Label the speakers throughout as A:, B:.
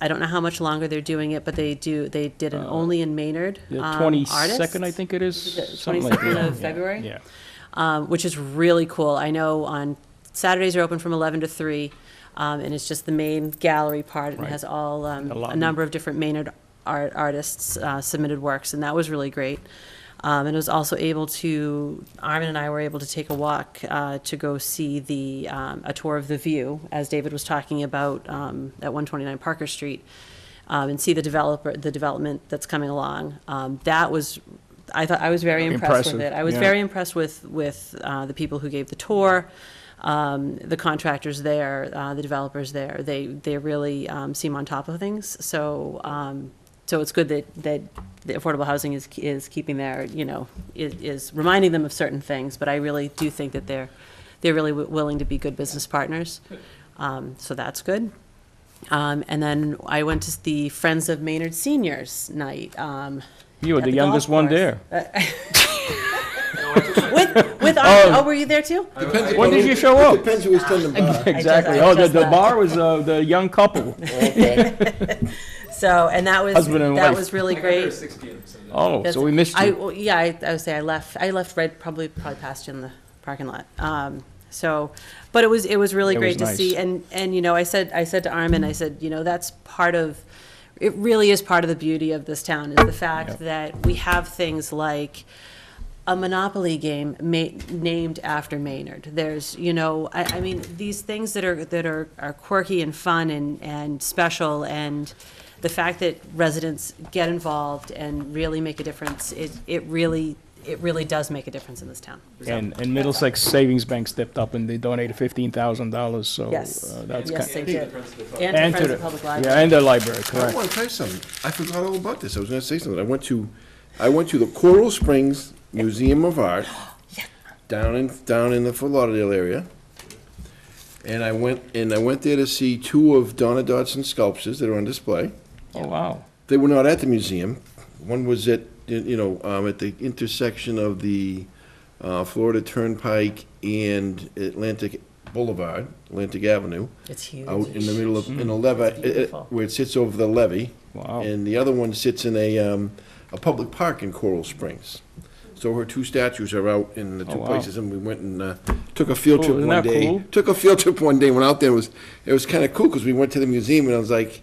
A: I don't know how much longer they're doing it, but they do, they did an Only in Maynard.
B: The
A: um,
B: 22nd, Uh, I
A: artist,
B: think it is, something like that.
A: 22nd of
B: Yeah,
A: February?
B: Yeah.
A: um, which is really cool. I know on Saturdays are open from 11 to 3, um, and it's just the main gallery part. and
B: Right.
A: has all, um, a
B: A lot.
A: number of different Maynard art, artists uh, submitted works, and that was really great. Um, and it was also able to, Armin and I were able to take a walk uh, to go see the, um, a tour of the view, as David was talking about um, at 129 Parker Street, um, and see the developer, the development that's coming along. Um, that was, I thought, I was very impressed with it.
B: Impressive,
A: I was
B: yeah.
A: very very impressed with, with uh, the people who gave the tour, um, the contractors there, uh, the developers there. They, they really um, seem on top of things. So, um, so it's good that, that the affordable housing is, is keeping their, you know, is, is reminding them of certain things. But I really do think that they're, they're really wi- willing to be good business partners. Um, So that's good. Um, And then I went to the Friends of Maynard Seniors Night. um,
B: You were
A: at
B: the
A: golf
B: youngest one
A: course.
B: there.
A: With, with, Armin. oh, were you there too?
C: Depends
B: When
C: who-
B: did you show up?
C: It depends who was tending bar.
B: Exactly.
A: I
B: Oh, the,
A: just
B: the
A: left.
B: bar was uh, the young couple.
C: Okay.
A: So, and that was,
B: Husband and
A: that
B: wife.
A: was really
D: There
A: great.
D: was six games. so that-
B: Oh,
A: That's-
B: so we missed
A: I,
B: you.
A: well, yeah, I, I would say I left, I left right, probably, probably past you in the parking lot. Um, so, but it was, it was really
B: It
A: great
B: was
A: to
B: nice.
A: see. And, and, you know, I said, I said to Armin, I said, you know, that's part of, it really is part of the beauty of this town is the fact
B: Yep.
A: that we have things like a Monopoly game ma- named after Maynard. There's, you know, I, I mean, these things that are, that are, are quirky and fun and, and special and the fact that residents get involved and really make a difference, it, it really, it really does make a difference in this town.
B: And, and Middlesex Savings Bank stepped up and they donated fifteen thousand dollars, so.
A: Yes.
B: uh, That's
A: Yes,
B: kind.
A: they did. And to
B: And to
A: Friends
B: the,
A: of Public
B: yeah,
A: Library.
B: and the library,
C: I
B: correct.
C: want to tell you something. I forgot all about this. I was going to say something. I went to, I went to the Coral Springs Museum of Art down in, down in the Fort Lauderdale area. And I went, and I went there to see two of Donna Dodson's sculptures that are on display.
B: Oh, wow.
C: They were not at the museum. One was at, you know, um, at the intersection of the uh, Florida Turnpike and Atlantic Boulevard, Atlantic Avenue,
A: It's huge.
C: out in the middle of, in a levee,
A: Beautiful.
C: where it sits over the levee.
B: Mm. Wow.
C: And the other one sits in a, um, a public park in Coral Springs. So her two statues are out in the
B: Oh,
C: two
B: wow.
C: places, and we went and uh, took a field
B: Cool,
C: trip
B: isn't
C: one
B: that
C: day.
B: cool?
C: Took a field trip one day, went out there, it was, it was kind of cool, because we went to the museum, and I was like,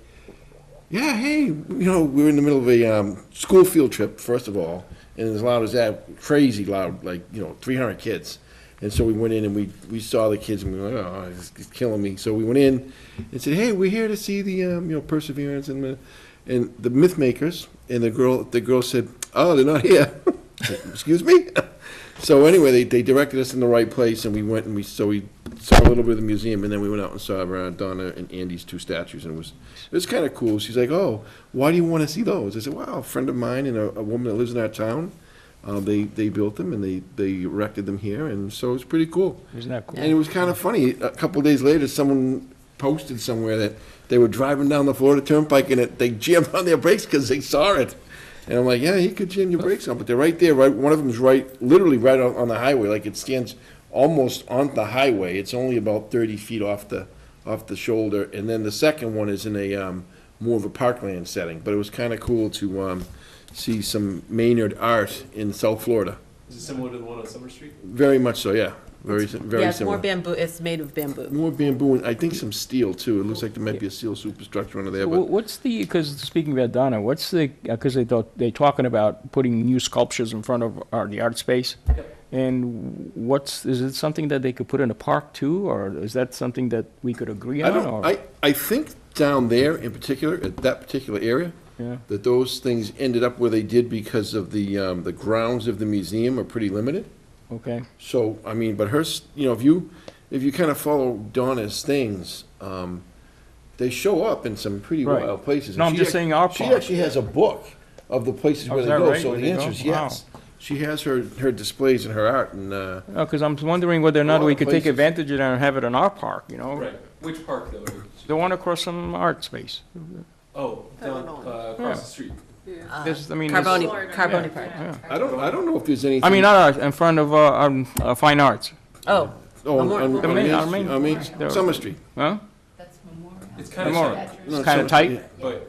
C: yeah, hey, you know, we were in the middle of a um, school field trip, first of all, and as loud as that, crazy loud, like, you know, 300 kids. And so we went in and we, we saw the kids and we were like, oh, it's, it's killing me. So we went in and said, hey, we're here to see the, um, you know, Perseverance and the, and the Myth Makers. And the girl, the girl said, oh, they're not here. I said, Excuse me? So anyway, they, they directed us in the right place and we went and we, so we saw a little bit of the museum and then we went out and saw uh, Donna and Andy's two statues and it was, it was kind of cool. She's like, oh, why do you want to see those? I said, wow, a friend of mine and a, a woman that lives in our town, uh, they, they built them and they, they erected them here and so it's pretty cool.
B: Isn't that cool?
C: And it was kind of funny, a couple days later, someone posted somewhere that they were driving down the Florida Turnpike and it, they jammed on their brakes because they saw it. And I'm like, yeah, you could jam your brakes on, but they're right there, right, one of them's right, literally right on, on the highway, like it stands almost on the highway, it's only about thirty feet off the, off the shoulder, and then the second one is in a, um, more of a parkland setting, but it was kind of cool to, um, see some Maynard art in South Florida,
D: Is it similar to the one on Summer Street?
C: very much so, yeah, very, si- very similar.
A: Yeah, it's more bamboo, it's made of bamboo.
C: More bamboo, and I think some steel too. It looks like there might be a steel superstructure under there,
B: Wh-
C: but
B: What's the, because speaking about Donna, what's the, because they thought, they talking about putting new sculptures in front of our, the art space? And what's, is it something that they could put in a park too, or is that something that we could agree
C: I
B: on?
C: don't,
B: or-
C: I, I think down there in particular, at that particular area,
B: Yeah.
C: that those things ended up where they did because of the, um, the grounds of the museum are pretty limited.
B: Okay,
C: So, I mean, but her, s- you know, if you, if you kind of follow Donna's things, um, they show up in some pretty
B: Right.
C: wild places.
B: No,
C: And
B: I'm
C: she
B: just
C: ac-
B: saying our
C: She
B: part.
C: actually has a book of the places
B: Oh,
C: where
B: is
C: they
B: that
C: go,
B: right?
C: so
B: Where
C: the
B: they go?
C: answer is yes. She has her, her displays and her art and, uh,
B: because I'm wondering whether or
C: lot
B: not we
C: of
B: could take
C: places.
B: advantage of that and have it in our park, you know?
D: Right. Which park though?
B: The one across some art space.
D: Oh, down, uh, across the street.
B: There's, I mean. there's-
A: Carboni, Carboni Park.
C: I don't, I don't know if there's anything.
B: I mean, not art, in front of, uh, um, uh, Fine Arts,
A: Oh,
C: Oh, on,
A: Amor-
C: on,
B: The
C: on
B: main-
C: Main
B: our
C: Street-
B: main-
C: on Main-
B: there-
C: Summer Street.
B: huh?
E: That's Memorial.
D: It's kind of
C: Memorial.
D: sad,
B: No,
C: It's kind of
B: so-
C: tight.
D: but